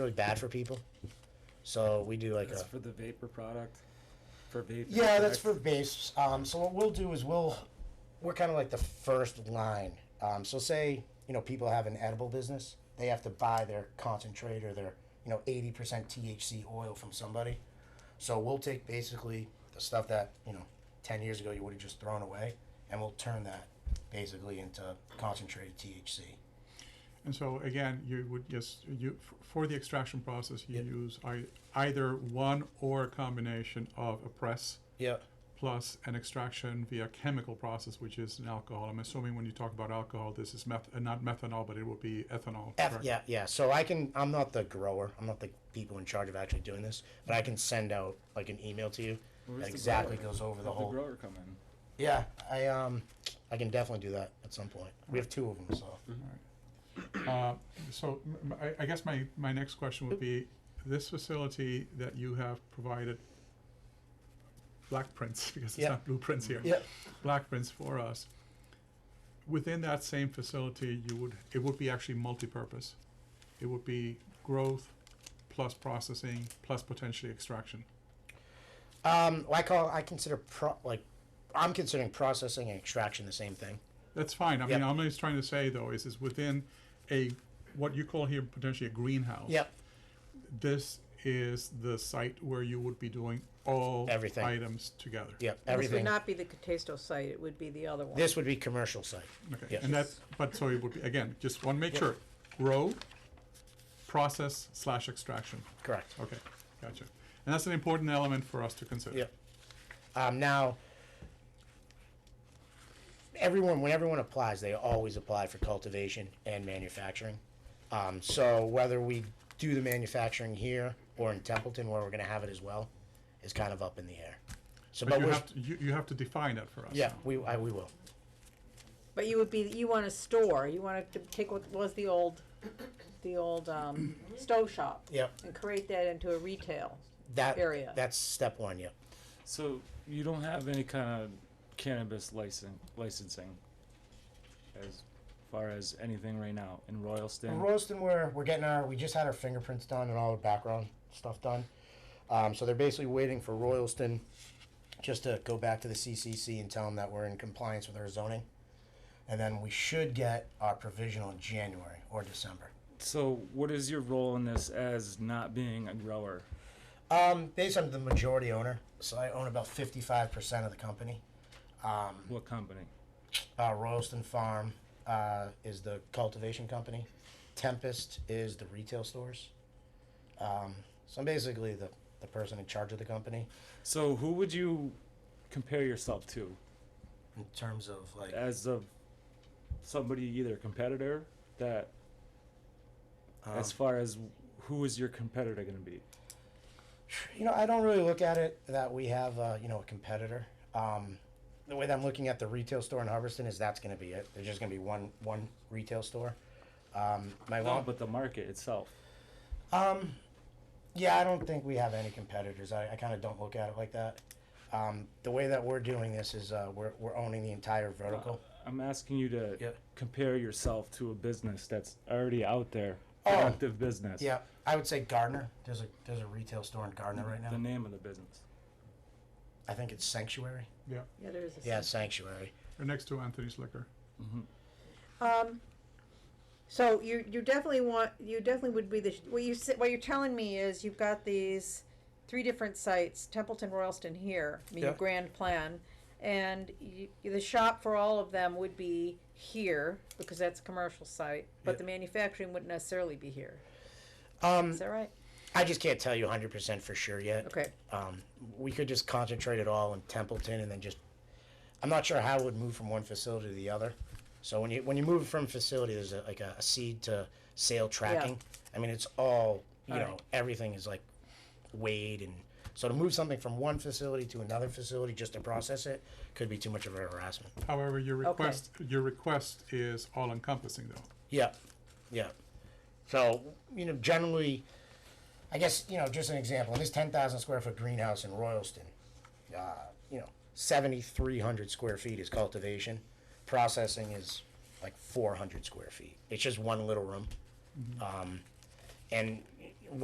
really bad for people. So we do like That's a for the vapor product. For vapor. yeah, that's for vapes. Um, so what we'll do is we'll we're kind of like the first line. Um, so say you know people have an edible business, they have to buy their concentrate or their you know eighty percent THC oil from somebody. So we'll take basically the stuff that you know ten years ago you would have just thrown away, and we'll turn that basically into concentrated THC. And so again, you would just, you, f- for the extraction process, you Yep. use ei- either one or a combination of a press Yeah. plus an extraction via chemical process, which is an alcohol. I'm assuming when you talk about alcohol, this is meth, uh, not methanol, but it would be ethanol. F, correct? yeah, yeah. So I can. I'm not the grower. I'm not the people in charge of actually doing this, but I can send out like an email to you Where's that the exactly grower? goes over the Have the whole. grower come in. Yeah, I um, I can definitely do that at some point. We have two of them, so Mm-hmm. Uh, So m- m- I, I guess my, my next question would be, this facility that you have provided black prints, because it's Yeah. not blueprints here. yeah, black prints for us. Within that same facility, you would, it would be actually multi-purpose. It would be growth plus processing plus potentially extraction. um, well, I call I consider pro like, I'm considering processing and extraction the same thing. That's fine. I mean, Yep. I'm just trying to say though, is is within a, what you call here potentially a greenhouse. Yep. This is the site where you would be doing all Everything. items together. Yep. This would Everything. not be the Catesto site, it would be the other one. This would be commercial site. Okay, Yes. and that's, but so it would be, again, just want to make sure, grow, process slash extraction. Correct. Okay, gotcha. And that's an important element for us to consider. Yep. Um, now, everyone, when everyone applies, they always apply for cultivation and manufacturing. Um, so whether we do the manufacturing here or in Templeton, where we're going to have it as well, is kind of up in the air. So, But but, you we're, have, to- you, you have to define that for us. yeah, now. we I, we will. But you would be, you want a store, you want to take what was the old, the old, um, stove shop. Yep. And create that into a retail. That Area. That's step one. Yep. So you don't have any kind of cannabis license licensing as far as anything right now in Royalston. In Royalston, we're, we're getting our, we just had our fingerprints done and all the background stuff done. Um, so they're basically waiting for Royalston just to go back to the CCC and tell them that we're in compliance with our zoning. And then we should get our provisional in January or December. so what is your role in this as not being a grower? Um, basically, I'm the majority owner, so I own about 55% of the company. Um, What company? uh, Royalston Farm uh, is the cultivation company, Tempest is the retail stores. Um, so I'm basically the, the person in charge of the company. So who would you compare yourself to in terms of like as of somebody either competitor that um, as far as who is your competitor going to be? you know i don't really look at it that we have uh, you know a competitor um, the way that i'm looking at the retail store in hubbardston is that's going to be it there's just going to be one one retail store um, my No, mom but the market itself. um, yeah i don't think we have any competitors i, I kind of don't look at it like that um, the way that we're doing this is uh, we're, we're owning the entire vertical I'm asking you to Yeah. compare yourself to a business that's already out there, Oh. productive business. yeah i would say gardner there's a there's a retail store in gardner right The now name of the business. i think it's sanctuary Yeah, Yeah, there is a. yeah sanctuary or next to Anthony's Liquor. Um, so you, you definitely want, you definitely would be the, what you, said- what you're telling me is you've got these three different sites, Templeton, Royalston here, I mean, your Yeah. grand plan. And you, the shop for all of them would be here, because that's a commercial site, Yeah. but the manufacturing wouldn't necessarily be here. um, Is that right? i just can't tell you 100% for sure yet Okay. um, we could just concentrate it all in Templeton and then just. I'm not sure how it would move from one facility to the other. So when you when you move from facility, there's a, like a, a seed to sale tracking. I mean, it's all you All know. right. Everything is like weighed and so to move something from one facility to another facility just to process it could be too much of a harassment. However, your request, your request is all encompassing though. Yeah, yeah. So you know, generally, I guess you know, just an example. In this ten thousand square foot greenhouse in Royalston, uh, you know, seventy three hundred square feet is cultivation. Processing is like four hundred square feet. It's just one little room, um, and